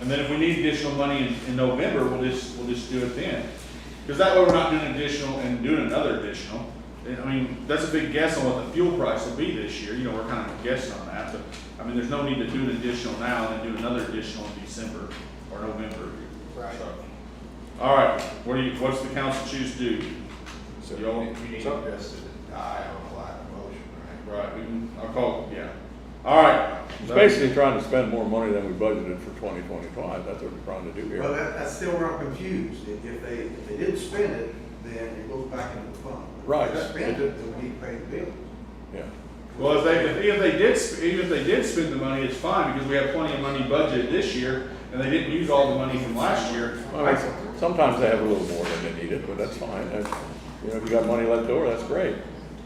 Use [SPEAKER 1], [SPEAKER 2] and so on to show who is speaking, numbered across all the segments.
[SPEAKER 1] And then if we need additional money in, in November, we'll just, we'll just do it then. Because that way we're not doing additional and doing another additional. And, I mean, that's a big guess on what the fuel price will be this year, you know, we're kind of guessing on that, but, I mean, there's no need to do an additional now and then do another additional in December or November.
[SPEAKER 2] Right.
[SPEAKER 1] So, All right, what do you, what's the council choose to do?
[SPEAKER 3] So
[SPEAKER 1] Y'all-
[SPEAKER 3] you need- you need to address the die on line of motion, right?
[SPEAKER 1] Right, we can, I'll call, yeah. All right.
[SPEAKER 4] It's basically trying to spend more money than we budgeted for twenty twenty-five, that's what we're trying to do
[SPEAKER 3] Well,
[SPEAKER 4] here.
[SPEAKER 3] that, that's still where I'm confused. If, if they, if they didn't spend it, then it goes back into the fund. If they
[SPEAKER 4] Right.
[SPEAKER 3] Spend it, then we need to pay the bill.
[SPEAKER 4] Yeah,
[SPEAKER 1] Well, if they, if- if they did, sp- even if they did spend the money, it's fine, because we have plenty of money budgeted this year, and they didn't use all the money from last year.
[SPEAKER 4] Well, it's- sometimes they have a little more than they needed, but that's fine, that's, you know, if you got money left over, that's great.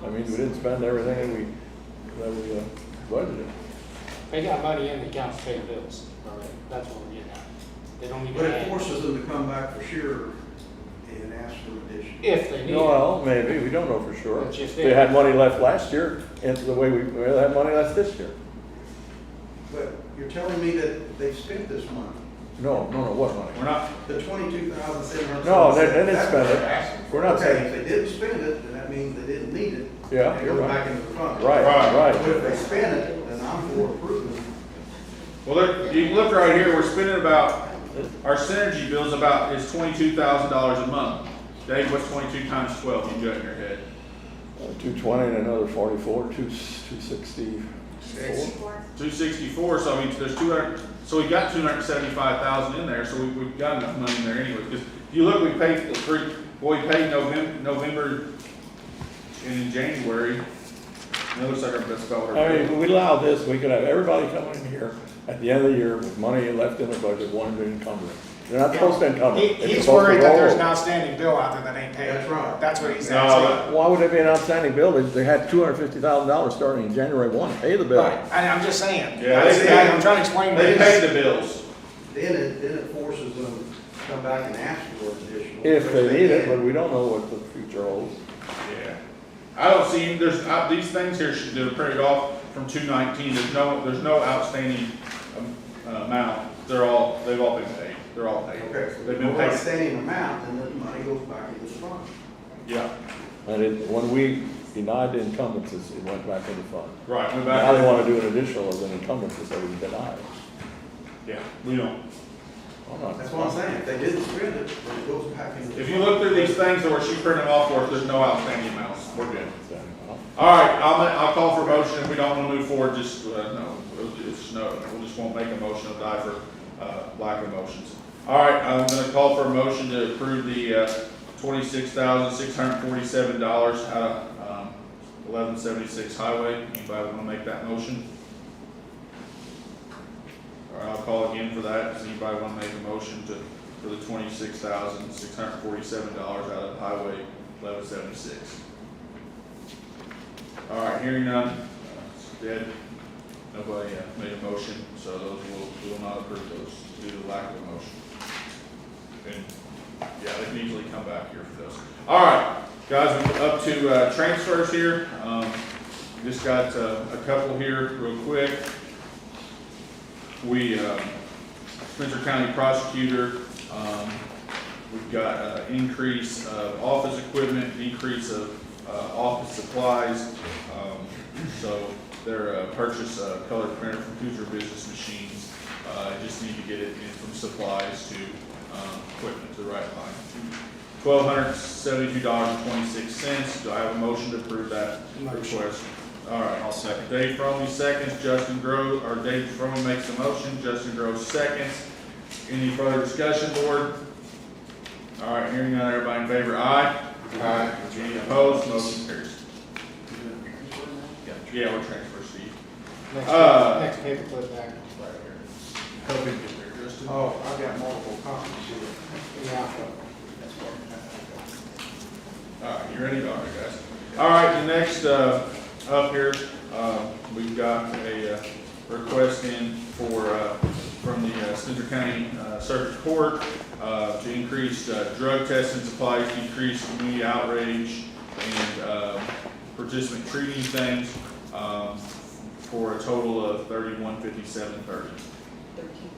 [SPEAKER 4] I mean, we didn't spend everything that we, that we uh, budgeted.
[SPEAKER 2] They got money in the accounts to pay bills already. That's what we're getting at. They don't need
[SPEAKER 3] But
[SPEAKER 2] to
[SPEAKER 3] it
[SPEAKER 2] add
[SPEAKER 3] forces them to come back for sure and ask for addition.
[SPEAKER 2] if they need it.
[SPEAKER 4] Well, maybe, we don't know for sure.
[SPEAKER 2] But if they-
[SPEAKER 4] They had money left last year, and the way we, we had money left this year.
[SPEAKER 3] But you're telling me that they've spent this money,
[SPEAKER 4] No, no, no, what
[SPEAKER 1] We're
[SPEAKER 4] money?
[SPEAKER 1] not,
[SPEAKER 3] the twenty-two thousand seven hundred.
[SPEAKER 4] No, they, they didn't spend it. We're not
[SPEAKER 3] Okay,
[SPEAKER 4] saying,
[SPEAKER 3] if they didn't spend it, then that means they didn't need it.
[SPEAKER 4] Yeah,
[SPEAKER 3] They
[SPEAKER 4] you're
[SPEAKER 3] go
[SPEAKER 4] right.
[SPEAKER 3] back into the fund.
[SPEAKER 4] right,
[SPEAKER 3] But
[SPEAKER 4] right.
[SPEAKER 3] if they spend it, then I'm for approving.
[SPEAKER 1] well, there- you can look right here, we're spending about, our synergy bill's about, is twenty-two thousand dollars a month. Dave, what's twenty-two times twelve, you got in your head?
[SPEAKER 4] Uh, Two twenty and another forty-four, two, two sixty-four.
[SPEAKER 1] Two sixty-four, so I mean, there's two hundred, so we got two hundred and seventy-five thousand in there, so we, we've got enough money in there anyway, because if you look, we paid the three, well, we paid November, November and in January, and it looks like our best dollar.
[SPEAKER 4] I mean, if we allow this, we could have everybody coming in here at the end of the year with money left in their budget, wanting to encumber it. They're not supposed to encumber.
[SPEAKER 5] He,
[SPEAKER 4] it. It's
[SPEAKER 5] he's
[SPEAKER 4] supposed to
[SPEAKER 5] worried that
[SPEAKER 4] roll
[SPEAKER 5] there's an
[SPEAKER 4] over.
[SPEAKER 5] outstanding bill out there that ain't paid.
[SPEAKER 3] That's right.
[SPEAKER 5] That's what he's
[SPEAKER 1] No,
[SPEAKER 5] asking.
[SPEAKER 4] Why would there be an outstanding bill? They- They had two hundred fifty thousand dollars starting in January one, pay the bill.
[SPEAKER 5] Right, I, I'm just saying.
[SPEAKER 1] Yeah,
[SPEAKER 5] That's
[SPEAKER 1] they-
[SPEAKER 5] the- I'm trying to explain
[SPEAKER 1] They
[SPEAKER 5] this.
[SPEAKER 1] paid the bills.
[SPEAKER 3] Then it, then it forces them to come back and ask for additional.
[SPEAKER 4] If they need it, but
[SPEAKER 3] didn't.
[SPEAKER 4] we don't know what the future holds.
[SPEAKER 1] Yeah. I don't see, there's, uh, these things here should, they're printed off from two nineteen, there's no, there's no outstanding um, uh, amount. They're all, they've all been paid, they're all paid.
[SPEAKER 3] Okay, so
[SPEAKER 1] They've
[SPEAKER 3] if
[SPEAKER 1] been
[SPEAKER 3] we're
[SPEAKER 1] paid,
[SPEAKER 3] extending amount, then the money goes back into the fund.
[SPEAKER 1] yeah,
[SPEAKER 4] And it, when we denied the encumbrances, it went back in the fund.
[SPEAKER 1] right, went back.
[SPEAKER 4] Now they wanna do an additional as an encumbrance, so we deny it.
[SPEAKER 1] Yeah, we don't.
[SPEAKER 4] I'm not-
[SPEAKER 3] That's what I'm saying, if they didn't spend it, then it goes back into. the
[SPEAKER 1] If you
[SPEAKER 3] fund.
[SPEAKER 1] look through these things that were she printed them off for us, there's no outstanding amounts, we're good.
[SPEAKER 4] Well,
[SPEAKER 1] All right, I'll, ma- I'll call for a motion, if we don't wanna move forward, just, uh, no, we'll- it's, no, we just won't make a motion, I'll die for, uh, lack of motions. All right, I'm gonna call for a motion to approve the, uh, twenty-six thousand, six hundred and forty-seven dollars out of, um, eleven seventy-six highway, anybody wanna make that motion? All right, I'll call again for that, does anybody wanna make a motion to, for the twenty-six thousand, six hundred and forty-seven dollars out of highway eleven seventy-six? All right, hearing none, it's dead. Nobody uh, made a motion, so those will, we will not approve those due to lack of a motion. And, yeah, they can easily come back here for those. All right, guys, we're up to uh, transfers here. Um, Just got uh, a couple here real quick. We, um, Spencer County Prosecutor, um, we've got uh, increase of office equipment, decrease of uh, office supplies. Um, So their uh, purchase uh, color printer from Cruiser Business Machines, uh, just need to get it in from supplies to um, equipment to the right line. Twelve hundred seventy-two dollars and twenty-six cents. Do I have a motion to approve that
[SPEAKER 5] Motion.
[SPEAKER 1] request? All right, I'll second. Dave Fromey seconds, Justin Grove, or Dave Fromey makes the motion, Justin Grove seconds. Any further discussion, board? All right, hearing none, everybody in favor, aye? Aye. Any opposed, motion carries. Yeah, we're transfer Steve.
[SPEAKER 2] Next
[SPEAKER 1] Uh,
[SPEAKER 2] next paperclip back.
[SPEAKER 1] Help him get there, Justin.
[SPEAKER 3] Oh, I've got multiple copies here.
[SPEAKER 2] Yeah.
[SPEAKER 1] All right, you ready? All right, guys. All right, the next, uh, up here, uh, we've got a, uh, request in for, uh, from the uh, Spencer County uh, Circuit Court, uh, to increase, uh, drug testing supplies, decrease community outrage, and, uh, participant treating things, um, for a total of thirty-one fifty-seven thirty.
[SPEAKER 6] Thirteen